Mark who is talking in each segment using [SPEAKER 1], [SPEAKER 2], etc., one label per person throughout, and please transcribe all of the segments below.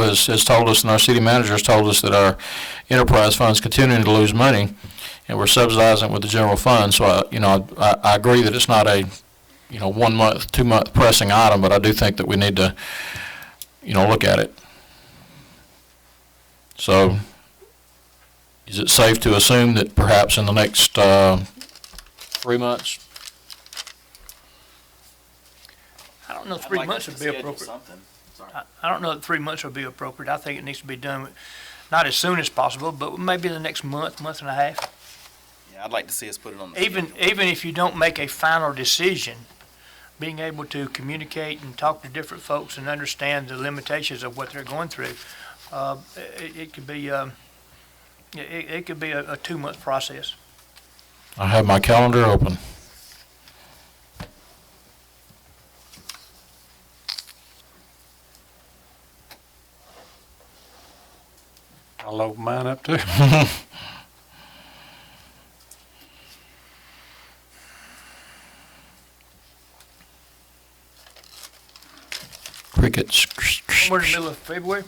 [SPEAKER 1] has, has told us, and our city manager has told us that our enterprise fund's continuing to lose money, and we're subsidizing it with the general fund, so I, you know, I, I agree that it's not a, you know, one-month, two-month pressing item, but I do think that we need to, you know, look at it. So, is it safe to assume that perhaps in the next, uh, three months,
[SPEAKER 2] I don't know, if three months would be appropriate. I I don't know that three months would be appropriate. I think it needs to be done, not as soon as possible, but maybe in the next month, month and a half.
[SPEAKER 3] Yeah, I'd like to see us put it on the
[SPEAKER 2] Even,
[SPEAKER 3] schedule.
[SPEAKER 2] even if you don't make a final decision, being able to communicate and talk to different folks and understand the limitations of what they're going through, uh, it, it could be, um, it, it it could be a, a two-month process.
[SPEAKER 1] I have my calendar open.
[SPEAKER 4] I'll open mine up too.
[SPEAKER 1] Crickets.
[SPEAKER 2] Somewhere in the middle of February,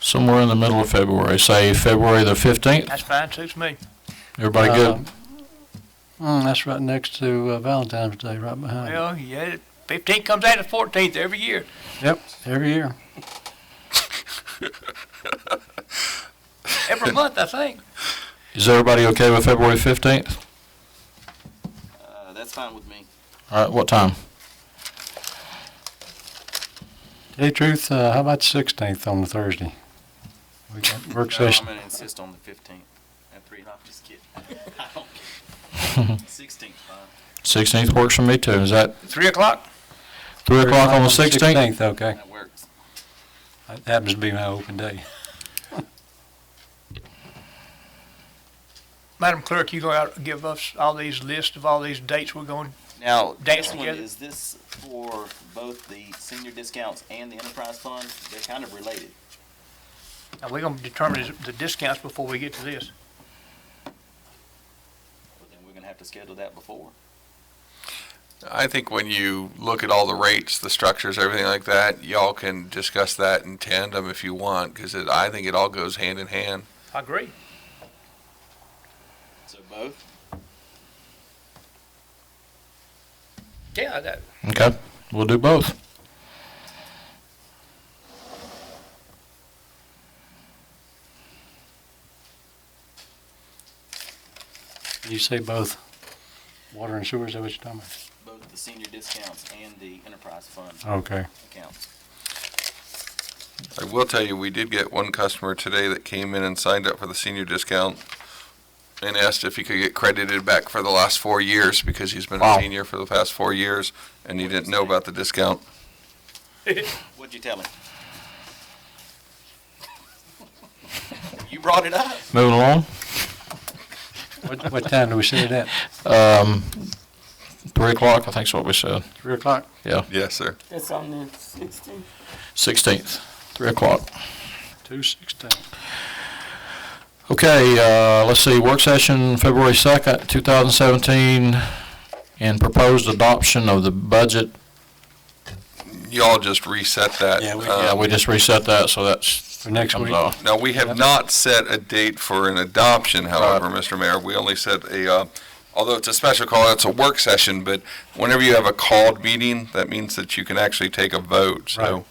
[SPEAKER 1] Somewhere in the middle of February, say February the 15th.
[SPEAKER 2] that's fine, suits me.
[SPEAKER 1] Everybody
[SPEAKER 4] Uh,
[SPEAKER 1] good?
[SPEAKER 4] Mm, that's right next to uh, Valentine's Day, right behind. it.
[SPEAKER 2] Well, yeah, fifteenth comes out of fourteenth every year.
[SPEAKER 4] Yep, every year.
[SPEAKER 2] Every month, I think.
[SPEAKER 1] Is everybody okay with February 15th?
[SPEAKER 3] Uh, that's fine with me.
[SPEAKER 1] All right, what time?
[SPEAKER 4] Tell you the truth, uh, how about the 16th on the Thursday? We got work
[SPEAKER 3] No, I'm
[SPEAKER 4] session.
[SPEAKER 3] gonna insist on the fifteenth at three. No, I'm just kidding. I don't care. Sixteenth, fine.
[SPEAKER 1] 16th works for me too. Is that
[SPEAKER 2] Three o'clock?
[SPEAKER 1] 3 o'clock on the 16th?
[SPEAKER 4] 16th, okay.
[SPEAKER 3] That works.
[SPEAKER 4] That happens to be my open day.
[SPEAKER 2] Madam Clerk, you go out and give us all these lists of all these dates we're going,
[SPEAKER 3] Now,
[SPEAKER 2] Dance
[SPEAKER 3] this one,
[SPEAKER 2] together.
[SPEAKER 3] is this for both the senior discounts and the enterprise fund? They're kind of related.
[SPEAKER 2] now we're gonna determine the discounts before we get to this.
[SPEAKER 3] But then we're gonna have to schedule that before.
[SPEAKER 5] I think when you look at all the rates, the structures, everything like that, y'all can discuss that in tandem if you want, because it, I think it all goes hand in hand.
[SPEAKER 2] I agree.
[SPEAKER 3] So both?
[SPEAKER 2] Yeah, that,
[SPEAKER 1] Okay, we'll do both.
[SPEAKER 4] You say both water and sewers, is that what you're talking
[SPEAKER 3] Both the senior discounts and the enterprise fund
[SPEAKER 4] about? Okay.
[SPEAKER 3] accounts.
[SPEAKER 5] I will tell you, we did get one customer today that came in and signed up for the senior discount and asked if he could get credited back for the last four years, because he's been a
[SPEAKER 1] Wow.
[SPEAKER 5] senior for the past four years, and he didn't know about the discount.
[SPEAKER 3] What'd you tell him? You brought it up.
[SPEAKER 1] Moving along,
[SPEAKER 4] What, what time do we set it at?
[SPEAKER 1] 3 o'clock, I think is what we said.
[SPEAKER 4] 3 o'clock?
[SPEAKER 1] Yeah,
[SPEAKER 5] Yes, sir.
[SPEAKER 6] That's on the sixteenth.
[SPEAKER 1] 16th, 3 o'clock.
[SPEAKER 4] 2:16.
[SPEAKER 1] Okay, uh, let's see, work session February 2nd, 2017, and proposed adoption of the budget.
[SPEAKER 5] Y'all just reset that.
[SPEAKER 4] Yeah, we-
[SPEAKER 5] um,
[SPEAKER 1] Yeah, we just reset that, so that's.
[SPEAKER 4] Uh, For next
[SPEAKER 1] comes
[SPEAKER 4] week.
[SPEAKER 1] off.
[SPEAKER 5] Now, we have not set a date for an adoption, however, Mr. Mayor. We only set a, uh, although it's a special call, it's a work session, but whenever you have a called meeting, that means that you can actually take a vote,
[SPEAKER 4] Right.
[SPEAKER 5] so.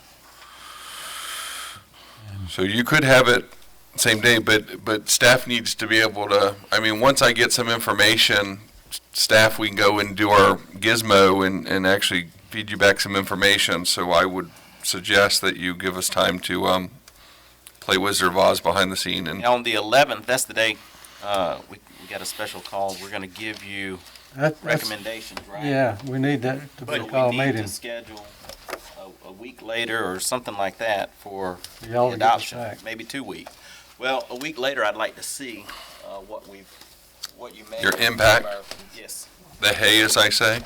[SPEAKER 5] So you could have it same day, but, but staff needs to be able to, I mean, once I get some information, staff, we can go and do our gizmo and, and actually feed you back some information. So I would suggest that you give us time to, um, play Wizard of Oz behind the scene and
[SPEAKER 3] And on the eleventh, that's the day, uh, we, we got a special call. We're gonna give you
[SPEAKER 4] That- that's-
[SPEAKER 3] recommendations, right?
[SPEAKER 4] Yeah, we need that to be
[SPEAKER 3] But
[SPEAKER 4] called
[SPEAKER 3] we need to
[SPEAKER 4] meeting.
[SPEAKER 3] schedule a, a week later or something like that for
[SPEAKER 4] for
[SPEAKER 3] the
[SPEAKER 4] y'all to get us
[SPEAKER 3] adoption,
[SPEAKER 4] back.
[SPEAKER 3] maybe two weeks. Well, a week later, I'd like to see, uh, what we've, what you made.
[SPEAKER 5] Your impact.
[SPEAKER 3] Yes.
[SPEAKER 5] the hay, as I say.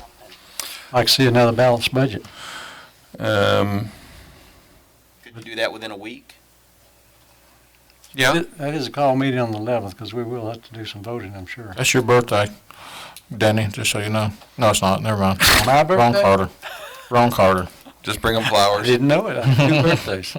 [SPEAKER 4] I can see another balanced budget.
[SPEAKER 5] Um,
[SPEAKER 3] Could you do that within a week?
[SPEAKER 5] yeah,
[SPEAKER 4] That is a call meeting on the 11th, because we will have to do some voting, I'm sure.
[SPEAKER 1] That's your birthday, Danny, just so you know. No, it's not, never mind.
[SPEAKER 4] My
[SPEAKER 1] Wrong Carter. Wrong Carter.
[SPEAKER 5] just bring them flowers.
[SPEAKER 4] I didn't know it, I had two birthdays.